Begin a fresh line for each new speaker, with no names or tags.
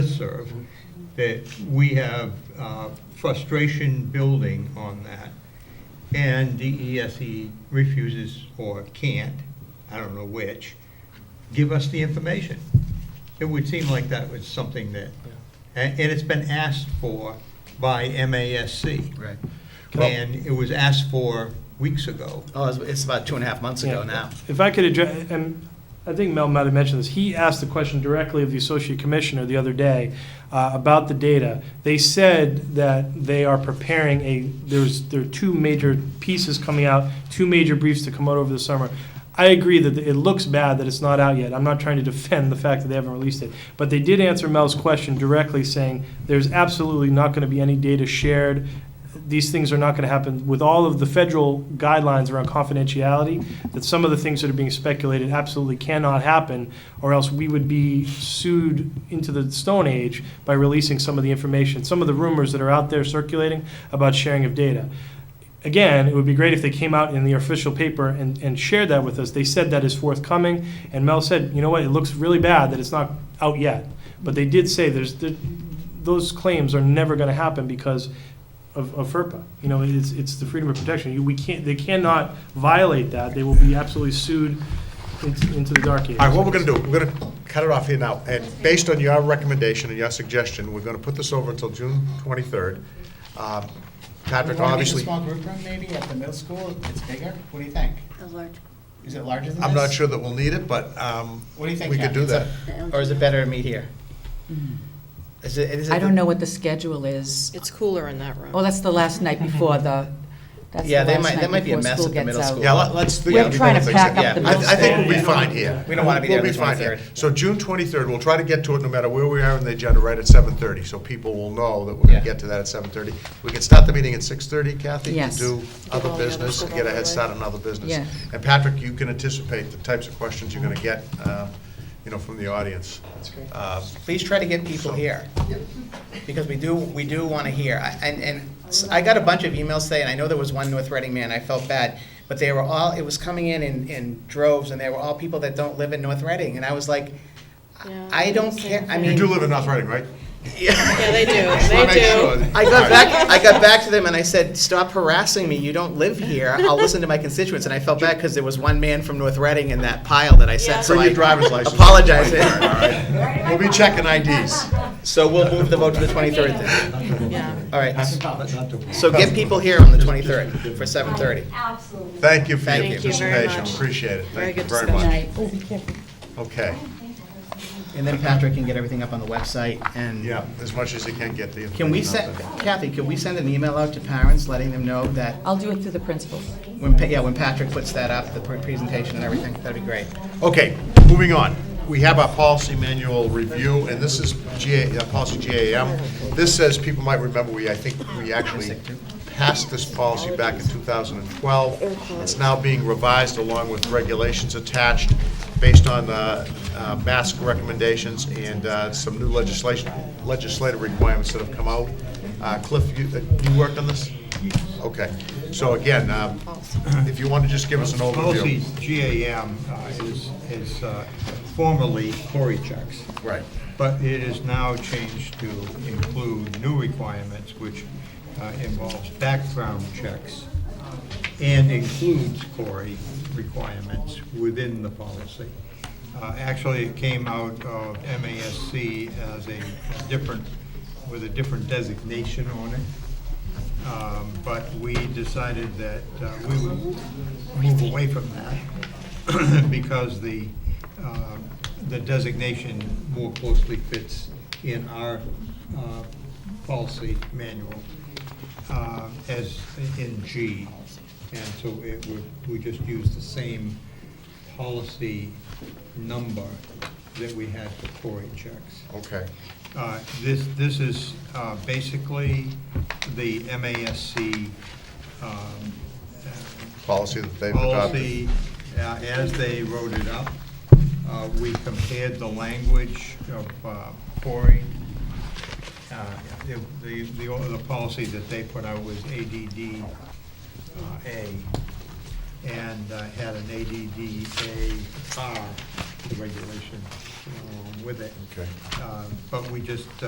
listserv, that we have uh, frustration building on that, and DESE E refuses or can't, I don't know which, give us the information. It would seem like that was something that, and and it's been asked for by MASC.
Right.
And it was asked for weeks ago.
Oh, it's- it's about two and a half months ago
Yeah.
now.
If I could address, and I think Mel might have mentioned this, he asked the question directly of the associate commissioner the other day uh, about the data. They said that they are preparing a, there's, there are two major pieces coming out, two major briefs to come out over the summer. I agree that it looks bad that it's not out yet. I'm not trying to defend the fact that they haven't released it. But they did answer Mel's question directly, saying there's absolutely not going to be any data shared these things are not going to happen with all of the federal guidelines around confidentiality that some of the things that are being speculated absolutely cannot happen or else we would be sued into the stone age by releasing some of the information some of the rumors that are out there circulating about sharing of data again, it would be great if they came out in the official paper and, and shared that with us. They said that is forthcoming, and Mel said, you know what, it looks really bad that it's not out yet. But they did say there's, there- those claims are never gonna happen because of, of FERPA. You know, it's, it's the freedom of protection. You- We can't, they cannot violate that. They will be absolutely sued into, into the dark ages.
All right, what we're gonna do, we're gonna cut it off here now, and based on your recommendation and your suggestion, we're gonna put this over until June twenty-third. Um, Patrick,
Do you want to make a
obviously,
small group room maybe at the middle school? It's bigger? What do you think?
A large,
Is it larger than this?
I'm not sure that we'll need it, but um,
What do you think,
we could
Kathy?
do
It's a-
that.
Or is it better to meet here? Is it- is it
Hmm. I don't know what the schedule is.
It's cooler in that room.
Oh, that's the last night before the, that's the
Yeah, they
last
might- that
night
might be a
before
mess at
school
the
gets
middle
out.
school.
Yeah, let- let's. think
We're
of
trying to
things.
pack up
Yeah,
the
I- I
bills
think we'll be
there.
fine here.
We don't wanna be there on the
We'll be fine here.
23rd.
So June twenty-third, we'll try to get to it no matter where we are in the agenda, right at seven thirty, so people will know that we're
Yeah.
gonna get to that at seven thirty. We can start the meeting at six thirty, Kathy? to
Yes.
Do
all the
other
other
business, and
stuff
get a
out of
head
the way.
start on other business.
Yes.
And Patrick, you can anticipate the types of questions you're gonna get, um, you know, from the audience.
That's great.
Um,
Please try to get people here. Because we do, we do want to hear. I- And, and s- I got a bunch of emails today, and I know there was one North Reading man, I felt bad. But they were all, it was coming in in, in droves, and they were all people that don't live in North Reading. And I was like,
Yeah,
I don't
same
care, I
thing.
mean.
You do live in North Reading, right?
Yeah, they do,
Just wanna make
they
sure.
I got
All right.
back. I got back to them and I said, "Stop harassing me. You don't live here. I'll listen to my constituents." And I felt bad because there was one man from North Reading in that pile that I sent.
Yeah.
So
Bring
I
your driver's license.
Apologize.
All right. We'll be checking IDs.
So we'll move the vote to the 23rd then.
do, yeah.
All right.
So
So get people here on the 23rd for 7:30.
Absolutely.
Thank you for
Thank
your
you very
participation,
much.
appreciate it,
Very
thank you
good
very
discussion.
much.
Right.
Okay,
And then Patrick can get everything up on the website and.
yeah, as much as you can get the.
Can we
information out
send
there.
Kathy? Can we send an email out to parents letting them know that
I'll do it through the principals.
when Pa- yeah when Patrick puts that up the pre- presentation and everything that'd be great.
Okay, moving on. We have our policy manual review, and this is GA, uh, policy GAM. This says, people might remember, we, I think, we actually passed this policy back in 2012. It's now being revised along with regulations attached based on uh, uh, mask recommendations and uh, some new legislation, legislative requirements that have come out. Uh, Cliff, you, uh, you worked on this? Okay, so again, um, if you want to just give us an overview.
Policy GAM uh, is, is uh, formerly Cory checks.
Right.
But it is now changed to include new requirements, which uh, involves background checks and includes Cory requirements within the policy. Uh, Actually, it came out of MASC as a different, with a different designation on it. Um, But we decided that uh, we would move away from that because the, uh, the designation more closely fits in our uh, policy manual uh, as in G. And so it would, we just use the same policy number that we had for Cory checks.
Okay.
Uh, This, this is uh, basically the MASC um,
policy that they've adopted.
policy uh, as they wrote it up. Uh, We compared the language of uh, Cory. Uh, The, the, the o- the policy that they put out was ADD uh, A, and uh, had an ADD A R regulation, uh, with it.
Okay.
Um, But we just,